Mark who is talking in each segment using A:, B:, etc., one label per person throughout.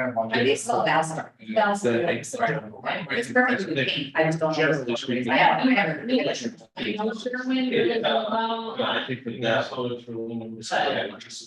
A: kind of like-
B: I used to love Valspar.
C: The-
B: Valspar.
C: it's-
B: Right, It's perfectly pink, I just don't. know what
A: Generally
B: it's called.
A: speaking.
B: I have, I have.
C: Yeah. I think that that's all it's really.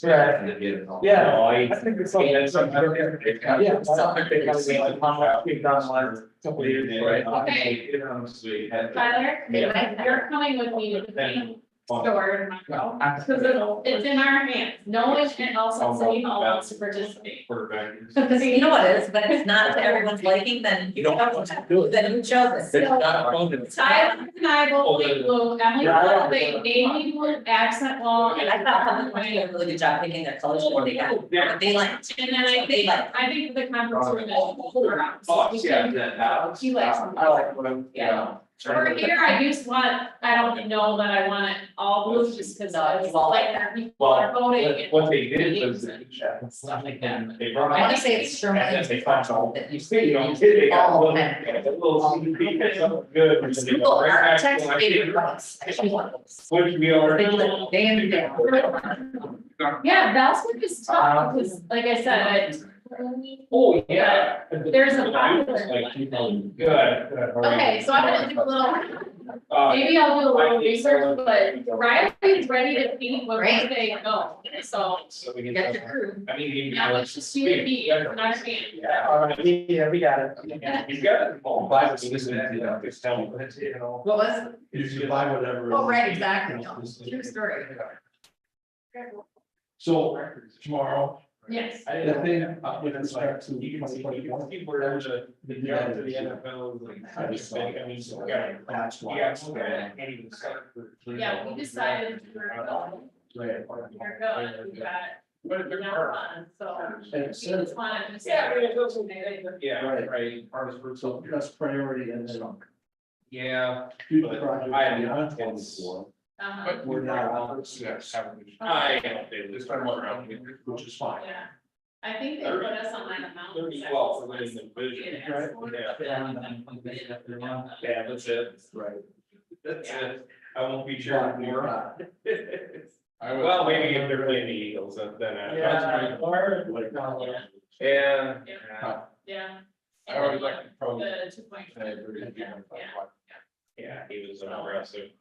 D: Yeah. Yeah.
C: No, I-
D: I think it's something that's. Yeah. it's something that gotta be like, how much we've done the last couple of years, right?
E: Okay.
D: You know, so we had-
E: Tyler, you're coming with me to the main store tomorrow, cause it's, it's in our hands, no one else in City Hall wants to participate.
D: Quarterback is-
B: Because you know it is, but it's not to everyone's liking, then
C: You
B: you
C: don't
B: chose
C: to do it.
B: then you chose
C: There's
B: it.
C: not fun in-
E: Tyler and I both play blue, Emily
D: Yeah, I don't-
E: will play navy blue accent wall.
B: I thought Public Works did a really good job picking their colors that they got,
D: Yeah.
B: but they like.
E: And then I think, I think the conference room is four hours.
D: Oh, yeah, that house.
E: He likes-
D: I like what I'm, yeah.
E: Over here, I just want, I don't know that I want it all blue, just cause I was like, people are
D: Well,
E: voting
D: what
E: and
D: what they did was. they-
B: Stuff like that.
D: They brought.
B: I wanna say it's Sherman.
D: And then they found all-
B: That you see.
D: You know, they got a
B: All
D: little,
B: of them.
D: a little sneaky, it's something good. which they
B: Google
D: go right back to,
B: architects,
D: like,
B: favorite books, I actually want those.
D: Which we are.
B: They live day in, day out.
E: Yeah, Valspar is tough,
D: Uh,
E: because like I said, I.
D: Oh, yeah.
E: There's a popular
D: Like, you know,
C: one.
D: Good.
E: Okay, so I'm gonna do a little,
D: Uh,
E: maybe I'll do a little research, but Riley's ready to paint what
B: Great.
E: they go, so.
D: so we can.
B: Get your crew.
D: I mean. you-
E: Now it's just you and me, not a man.
D: Yeah.
C: All right, yeah, we got it.
D: You got it. All by the season, you know, just tell me, but it's, you know.
B: What was it?
C: You should buy whatever.
B: Oh, right, exactly. No, True story.
C: So tomorrow,
E: Yes.
D: I
C: the
D: didn't
C: thing,
D: think,
C: uh,
D: you
C: when
D: know,
C: it
D: it's like,
C: starts in
D: you can see, you
C: 2021,
D: can see where the, the draft of the NFL, like, I just think, I mean, so, yeah.
C: That's
D: You
C: why.
D: got to look at it, and even start for-
E: Yeah, we decided we're going,
C: Right.
E: we're going, we got,
D: But if
E: we're
D: they're
E: not
D: hard.
E: on, so.
C: And
E: We
C: it says-
E: just wanted to.
D: Yeah, I mean, it doesn't, yeah,
C: Right.
D: right, hardest for
C: So that's priority and then.
D: Yeah.
C: do the project
D: I am
C: beyond
D: not-
C: 24.
E: Um,
D: But
C: we're not allowed
D: to
C: to have
D: I am, this time around,
C: Which is fine.
E: yeah, I think they put us on like a mountain.
D: Thirty twelve, for winning the division.
E: Yeah.
D: Yeah, yeah, that's it,
C: Right.
D: that's it, I won't be sure more.
A: I would-
D: Well, maybe if they're playing the Eagles, then uh, I.
C: Yeah. Or, like, not like-
E: Yeah,
D: Yeah.
E: yeah.
A: I always like to probably.
E: The two point
A: I agree with you.
D: Yeah, he was an aggressive.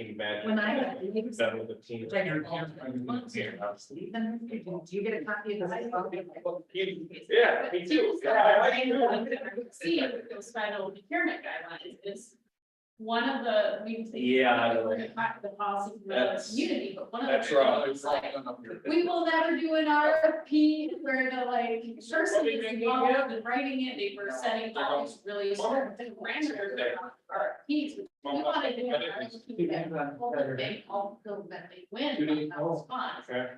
D: Imagine.
B: When I got leaves,
D: Done with the team.
B: which I never called them, once
D: Yeah.
B: I was leaving them, do you get a copy of
D: You-
B: this?
D: Yeah, me too. Yeah, I like you.
E: See, with those final procurement guidelines is one of the, we. say-
D: Yeah, I know.
E: We're gonna talk to the policy for the
D: That's-
E: community, but one of the.
D: that's right.
E: things like, We will never do an RFP where the like, person is involved in writing it, they were setting all these really strict parameters around RFPs. We wanna do an RFP that will make all the that they win, that was fun.
D: Okay.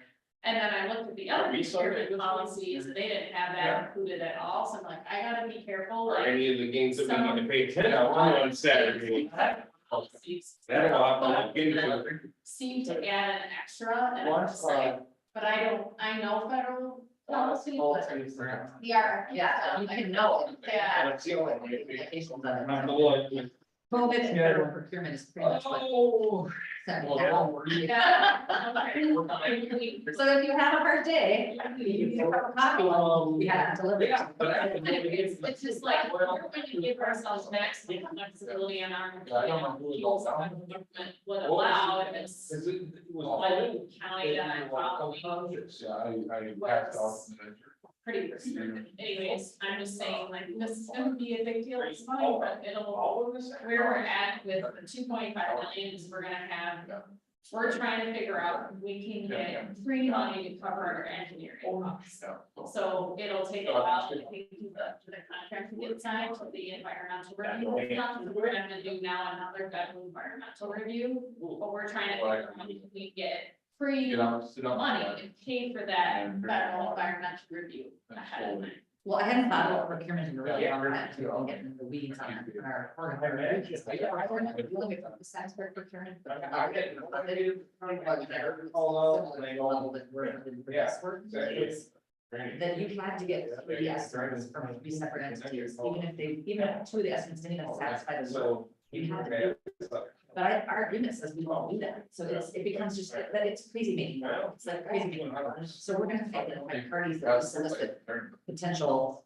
E: And then I looked at the
D: Are
E: other
D: we sorry?
E: procurement policies, they didn't have
D: Yeah.
E: that included at all, so I'm like, I gotta be careful,
D: Or
E: like.
D: any of the games that we need to pay ten
E: some
D: on on Saturday.
E: policies
D: That'll have to get it.
E: Seem to add an extra, and I'm just like, but I don't, I know federal policy, but the RFP.
B: Yeah, you
E: stuff, I
B: can know.
E: Yeah.
D: That's the only way.
B: Vacations on it.
D: Not the one.
B: COVID and federal procurement is pretty much what.
D: Oh.
B: set
D: Well,
B: that up.
E: Yeah. We-
B: So if you have a hard day, you can have a copy, we have to deliver.
D: Yeah, but I-
E: It's, it's just like, we're going to give ourselves maximum flexibility on our.
D: I don't know who it
E: People's
D: was.
E: government would allow if it's
D: Is it- it was-
E: like county that I probably
A: Yeah, I, I passed off. the measure.
E: pretty restricted. Anyways, I'm just saying like this is gonna be a big deal, it's fine, but it'll,
D: All of this?
E: where we're at with the two point five million is we're gonna have. We're trying to figure out, if we can get free money to cover our engineering costs.
A: Yeah, so-
E: So it'll take a while to think the, the contract to get signed, to the environmental review. stuff, We're gonna have to do now another federal environmental review, but we're trying to figure out if we get free
A: Get out, sit on.
E: money and pay for that federal environmental review ahead of time.
B: Well, I hadn't thought about procurement in a really long time too, I'll get into the weeds on it in our. our- our- but yeah, I don't know, you look at the size for procurement. but I
D: I get it.
B: didn't know that they do procurement like that.
D: Although, they don't-
B: Level that we're in for
D: Yeah,
B: this work
D: exactly.
B: is That you had to get three estimates from three separate entities, even if they, even if two of the estimates didn't even satisfy the.
D: So.
B: You have to But our, our agreement says we won't do that, so it's, it becomes just that that it's crazy making, law. it's like crazy making. law. So we're gonna fight it, like parties that send us with potential